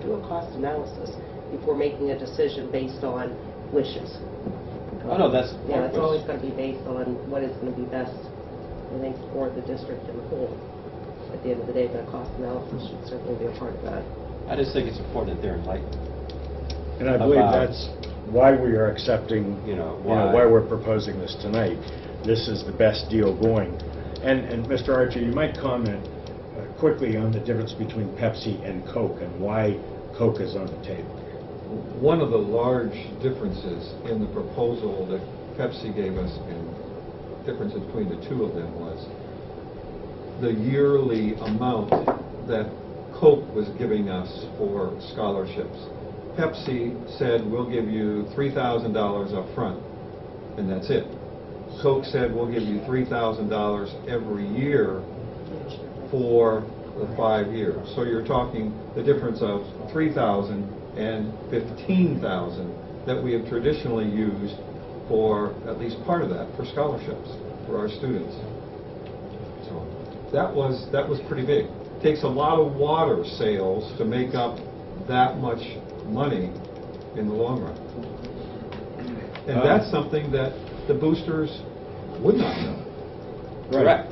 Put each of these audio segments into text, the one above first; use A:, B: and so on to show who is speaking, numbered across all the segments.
A: do a cost analysis before making a decision based on wishes.
B: Oh, no, that's.
A: Yeah, it's always going to be based on what is going to be best, I think, for the district and the whole. At the end of the day, but a cost analysis should certainly be a part of that.
B: I just think it's important that they're enlightened.
C: And I believe
B: about-
C: that's why we are accepting,
B: You know,
C: you know,
B: why-
C: why we're proposing this tonight. This is the best deal going. And, and Mr. Archer, you might comment uh, quickly on the difference between Pepsi and Coke and why Coke is on the table.
D: One of the large differences in the proposal that Pepsi gave us, and difference between the two of them was the yearly amount that Coke was giving us for scholarships. Pepsi said, "We'll give you $3,000 up front, and that's it." Coke said, "We'll give you $3,000 every year for the five years. So you're talking the difference of 3,000 and 15,000 that we have traditionally used for, at least part of that, for scholarships for our students. So that was, that was pretty big. Takes a lot of water sales to make up that much money in the long run. And
B: Uh,
D: that's something that the boosters would not know.
B: Correct.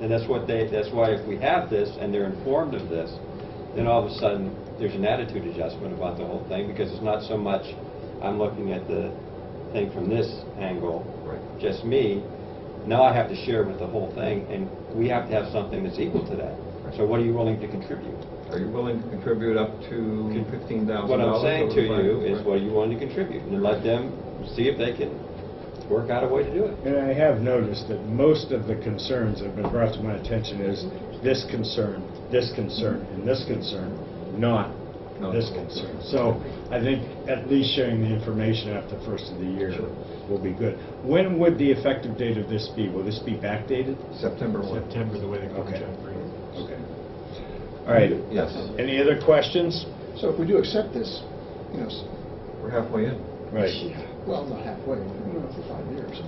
B: And that's what they, that's why if we have this and they're informed of this, then all of a sudden, there's an attitude adjustment about the whole thing because it's not so much, I'm looking at the thing from this angle,
D: Right.
B: just me. Now I have to share with the whole thing and we have to have something that's equal to that. So what are you willing to contribute?
D: Are you willing to contribute up to fifteen thousand dollars?
B: What I'm saying to you is what are you willing to contribute? And let them see if they can work out a way to do it.
C: And I have noticed that most of the concerns that have been brought to my attention is this concern, this concern, and this concern, not
D: No.
C: this concern. So I think at least sharing the information after the first of the year
D: Sure.
C: will be good. When would the effective date of this be? Will this be backdated?
D: September one.
E: September, the way the
C: Okay.
E: contract reads.
C: Okay. All right.
D: Yes,
C: Any other questions?
F: So if we do accept this, you know, s-
D: we're halfway in.
C: Right.
F: well, not halfway, you know, for five years.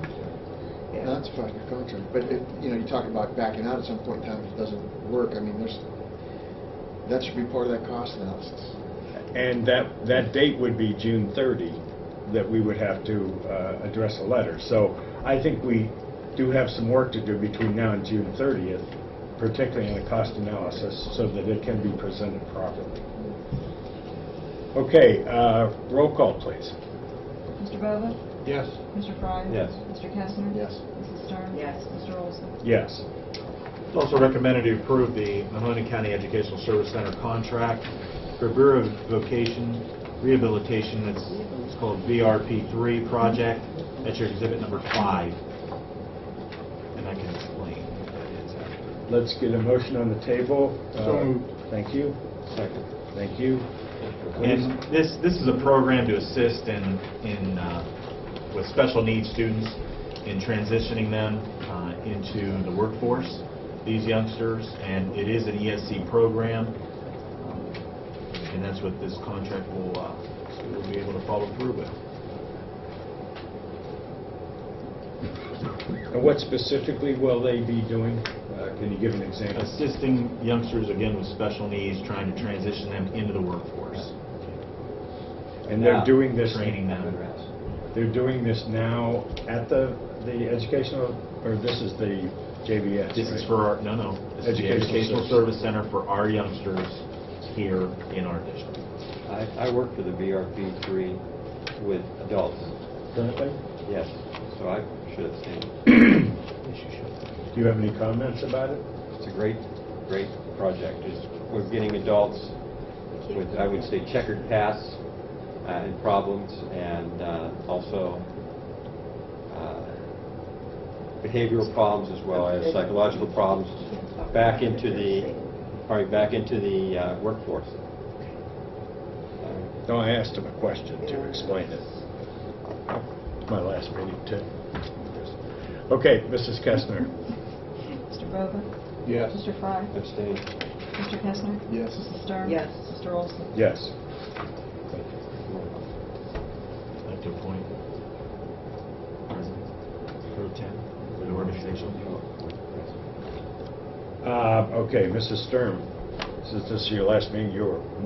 A: Yeah.
F: That's a five-year contract, but if, you know, you talk about backing out at some point in time if it doesn't work, I mean, there's, that should be part of that cost analysis.
C: And that, that date would be June 30, that we would have to uh, address a letter. So I think we do have some work to do between now and June 30th, particularly in the cost analysis, so that it can be presented properly. Okay, uh, roll call, please.
G: Mr. Bova?
D: Yes.
G: Mr. Frye?
B: Yes.
G: Mr. Kestner?
F: Yes.
G: Mrs. Stern?
A: Yes.
G: Mr. Olson?
C: Yes.
E: It's also recommended to approve the Mahoning County Educational Service Center contract for Bureau of Vocation Rehabilitation, it's it's called VRP3 project, that's your exhibit number five. And I can explain what that is after.
C: Let's get a motion on the table.
F: So
C: Uh,
F: moved.
C: Thank you,
B: Second.
C: thank you.
E: And this, this is a program to assist in, in, uh, with special needs students in transitioning them uh, into the workforce, these youngsters, and it is an ESC program. um, And that's what this contract will, uh, will be able to follow through with.
C: And what specifically will they be doing? Uh, Can you give an example?
E: Assisting youngsters, again, with special needs, trying to transition them into the workforce,
C: And they're doing this...
E: training them.
C: They're doing this now at the, the educational, or this is the JVS,
E: This is
C: right?
E: for our, no, no, this is the
C: Educational
E: Educational
C: Service.
E: Service Center for our youngsters here in our district.
B: I, I work for the VRP three with adults,
C: Currently?
B: yes, so I should have seen.
C: Do you have any comments about it?
B: It's a great, great project, It's we're getting adults with, I would say, checkered pasts uh, and problems, and uh, also uh, behavioral problems as well as psychological problems, back into the, probably back into the uh, workforce. Uh,
C: No, I asked him a question to explain it. My last meeting, too. Okay, Mrs. Kestner.
G: Mr. Bova?
F: Yes.
G: Mr. Frye?
B: Abstain.
G: Mr. Kestner?
F: Yes.
G: Mrs. Stern?
A: Yes.
G: Mr. Olson?
C: Yes.
E: I'd like to appoint President Pro Tem for the organization.
C: Uh, Okay, Mrs. Stern, since this is your last meeting, you're